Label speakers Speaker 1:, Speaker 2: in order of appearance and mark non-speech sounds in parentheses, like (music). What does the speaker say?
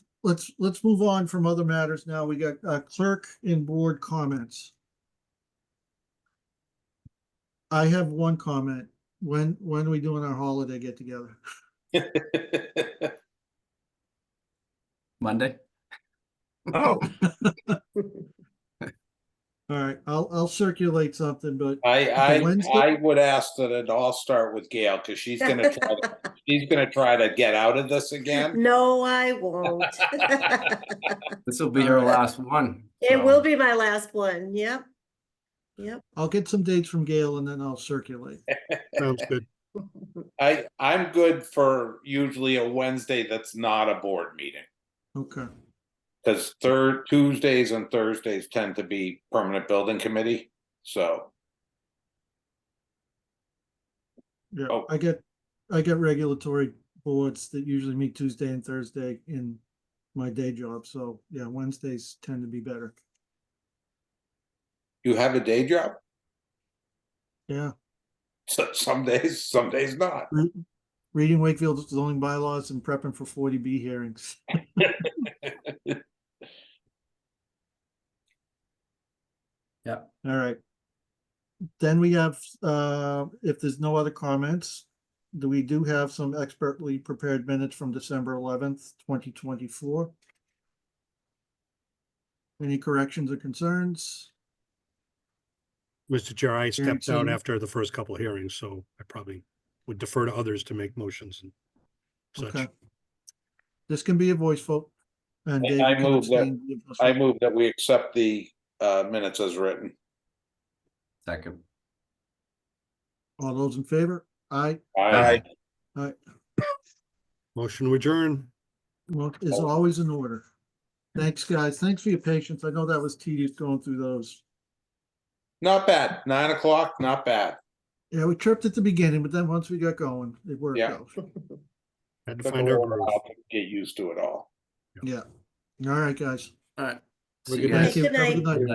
Speaker 1: let's, let's move on from other matters now. We got uh, clerk and board comments. I have one comment. When, when are we doing our holiday get together?
Speaker 2: Monday?
Speaker 3: Oh,
Speaker 1: All right, I'll, I'll circulate something, but
Speaker 3: I, I,
Speaker 1: Wednesday?
Speaker 3: I would ask that it all start with Gail, because she's gonna
Speaker 1: (laughs)
Speaker 3: try, to- she's gonna try to get out of this again.
Speaker 4: (laughs) No, I
Speaker 3: (laughs)
Speaker 4: won't.
Speaker 2: (laughs) This will be her
Speaker 1: Alright.
Speaker 2: last one.
Speaker 4: It will be my last one, yep. (laughs) Yep.
Speaker 1: I'll get some dates from Gail and then I'll circulate.
Speaker 5: Sounds good.
Speaker 3: I, I'm good for usually a Wednesday that's not a board meeting,
Speaker 1: Okay,
Speaker 3: because third, Tuesdays and Thursdays tend to be permanent building committee, so.
Speaker 1: yeah,
Speaker 3: Oh.
Speaker 1: I get, I get regulatory boards that usually meet Tuesday and Thursday in my day job, so yeah, Wednesdays tend to be better.
Speaker 3: You have a day job,
Speaker 1: Yeah,
Speaker 3: so some days, some days not.
Speaker 1: reading Wakefield's zoning bylaws and prepping for forty B hearings.
Speaker 2: Yeah.
Speaker 1: All right. Then we have, uh, if there's no other comments, do we do have some expertly prepared minutes from December eleventh, twenty twenty-four? Any corrections or concerns?
Speaker 5: Mr. Chair, I stepped out
Speaker 1: Guaranteed.
Speaker 5: after the first couple hearings, so I probably would defer to others to make motions and
Speaker 1: Okay.
Speaker 5: such.
Speaker 1: This can be a voice vote. and
Speaker 3: I-
Speaker 1: Dave,
Speaker 3: I
Speaker 1: you can
Speaker 3: move that-
Speaker 1: abstain, give us-
Speaker 3: I move that we accept the, uh, minutes as written.
Speaker 2: Second.
Speaker 1: All those in favor? Aye.
Speaker 3: I,
Speaker 1: Aye.
Speaker 5: Motion to adjourn.
Speaker 1: Well, is
Speaker 3: Oh.
Speaker 1: always in order. Thanks, guys. Thanks for your patience. I know that was tedious going through those.
Speaker 3: not bad, nine o'clock, not bad.
Speaker 1: Yeah, we tripped at the beginning, but then once we got going, it worked
Speaker 3: Yeah.
Speaker 1: out.
Speaker 5: Had to
Speaker 3: Took a
Speaker 5: find our
Speaker 3: little
Speaker 5: groove.
Speaker 3: while to Get used to it all.
Speaker 1: Yeah. All right, guys.
Speaker 2: All right.
Speaker 5: We're
Speaker 2: See you
Speaker 5: good.
Speaker 2: guys.
Speaker 1: Thank you. Have a
Speaker 4: Good night.
Speaker 1: good night.